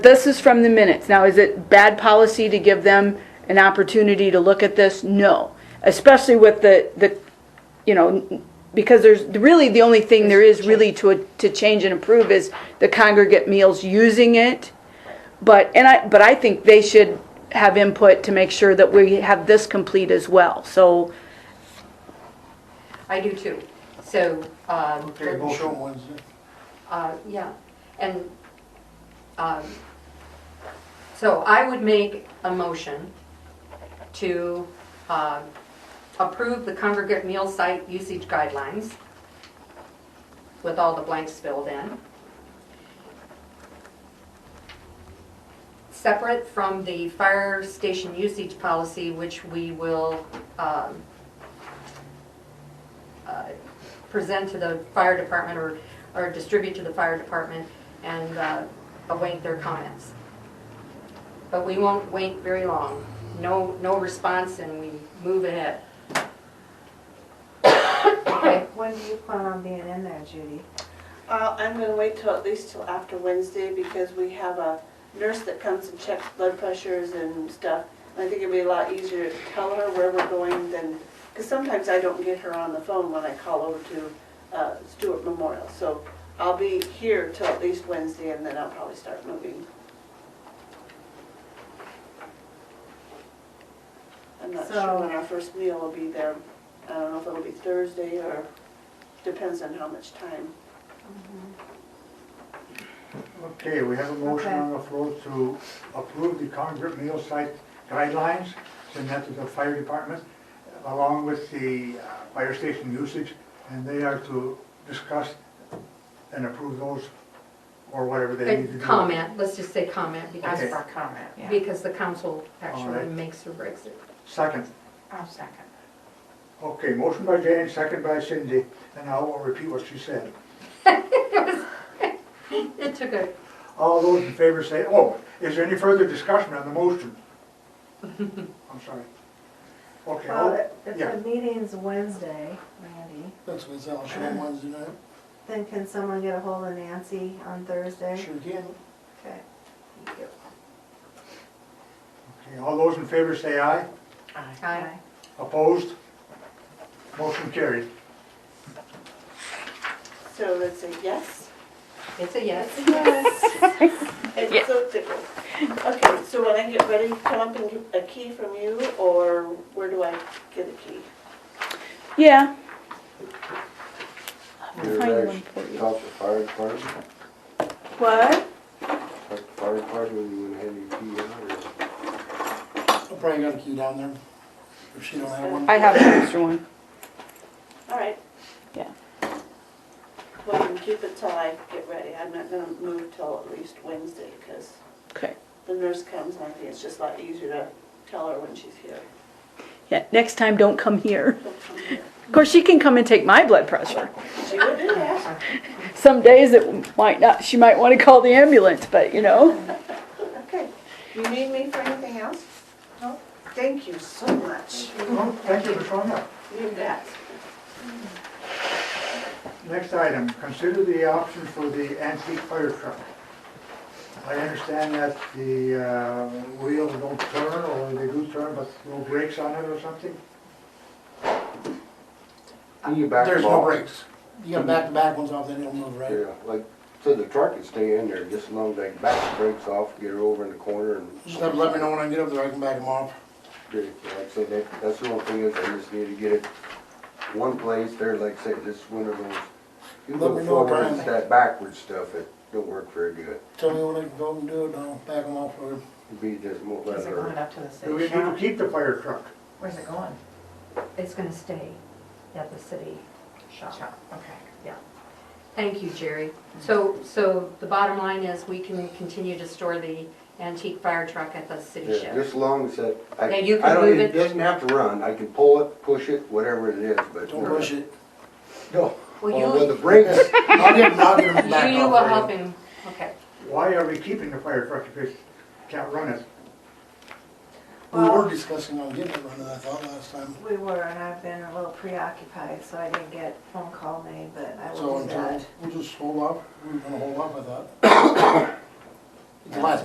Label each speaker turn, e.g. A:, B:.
A: This is from the minutes. Now, is it bad policy to give them an opportunity to look at this? No, especially with the, the, you know, because there's, really, the only thing there is really to, to change and improve is the congregate meals using it. But, and I, but I think they should have input to make sure that we have this complete as well. So,
B: I do too. So, um,
C: Okay, vote on Wednesday.
B: uh, yeah, and, um, so I would make a motion to uh, approve the congregate meal site usage guidelines with all the blanks filled in. Separate from the fire station usage policy, which we will um, uh, present to the fire department or, or distribute to the fire department and uh, await their comments. But we won't wait very long. No, no response and we move ahead. Okay,
D: When do you plan on being in there, Judy?
E: Uh, I'm gonna wait till, at least till after Wednesday, because we have a nurse that comes and checks blood pressures and stuff. And I think it'd be a lot easier to tell her where we're going than, because sometimes I don't get her on the phone when I call over to uh, Stewart Memorial. So I'll be here till at least Wednesday, and then I'll probably start moving. I'm not sure when our first meal will be there. I don't know if it'll be Thursday, or depends on how much time.
C: Okay, we have a motion
D: Okay.
C: on the floor to approve the congregate meal site guidelines, send that to the fire department, along with the uh, fire station usage, and they are to discuss and approve those, or whatever they need to
B: and
C: do.
B: comment, let's just say comment because,
C: Okay.
D: comment,
B: because the council actually
C: Alright.
B: makes or breaks it.
C: Second.
D: I'll second.
C: Okay, motion by Jane, second by Cindy, and I will repeat what she said.
B: It took a,
C: All those in favor say, oh, is there any further discussion on the motion? I'm sorry. Okay. oh, all-
D: Well, if
C: yeah.
D: the meeting's Wednesday, Randy,
F: That's what Sal showed on Wednesday night.
D: then can someone get a hold of Nancy on Thursday?
F: Sure can.
D: Okay.
C: Okay, all those in favor say aye.
B: Aye.
C: Opposed? Motion carried.
E: So let's say yes.
B: it's a yes.
E: Yes. It's so different. Okay, so when I get ready, come up and get a key from you, or where do I get a key?
A: yeah.
G: You're
A: Find one
G: actually
A: for you.
G: talked to fire department, talked
E: What?
G: to fire department when you went ahead and you out or?
F: I probably got a key down there, if she don't have one.
A: I have an extra one.
E: Um, All right.
A: Yeah.
E: Well, you can keep it till I get ready. I'm not gonna move till at least Wednesday, because
A: Okay.
E: the nurse comes, and I think it's just a lot easier to tell her when she's here.
A: Yeah, next time, don't come here.
E: She'll come here.
A: Of course, she can come and take my blood pressure.
E: She would do that.
A: some days it might not, she might want to call the ambulance, but you know.
E: Okay. You need me for anything else? No. Thank you so much.
C: Well, Thank you for showing up.
E: You bet.
C: Next item, consider the option for the antique fire truck. I understand that the uh, wheels don't turn, or they do turn, but no brakes on it or something?
G: You back
F: Uh, There's no
G: off.
F: brakes. You got back-to-back ones off, they don't move, right?
G: Yeah, like, so the truck can stay in there, just as long as they back the brakes off, get her over in the corner and.
F: Just have to let me know when I get up there, I can back them off.
G: Yeah, Like I say, that, that's the only thing is, I just need to get it one place there, like I say, this one of those. You
F: Let me
G: look
F: know what
G: forward,
F: time.
G: it's that backward stuff, it don't work very good.
F: Tell me when I can go and do it, and I'll back them off for you.
G: It'd be just more let
H: Is it going
G: her,
H: up to the
C: Do we
H: city
C: need to
H: shop?
C: keep the fire truck?
H: Where's it going?
B: It's gonna stay at the city shop.
H: Shop, okay.
B: Thank you, Jerry. So, so the bottom line is we can continue to store the antique fire truck at the city
G: yeah,
B: shed.
G: just as long as that, I,
B: Now you can
G: I
B: move it.
G: don't, it doesn't have to run, I can pull it, push it, whatever it is, but.
F: Don't push it.
G: No.
B: Well,
G: Well, with the
B: you,
G: brakes,
F: I'll get, I'll get them back
B: you you will
F: off
B: help
F: for you.
B: him, okay.
C: Why are we keeping the fire truck if it can't run it?
F: We were discussing on getting it running, I thought, last time.
D: We were, and I've been a little preoccupied, so I didn't get phone call made, but I uh,
F: So
D: will do
F: until,
D: that.
F: we'll just hold off, we were gonna hold off, I thought. It's the last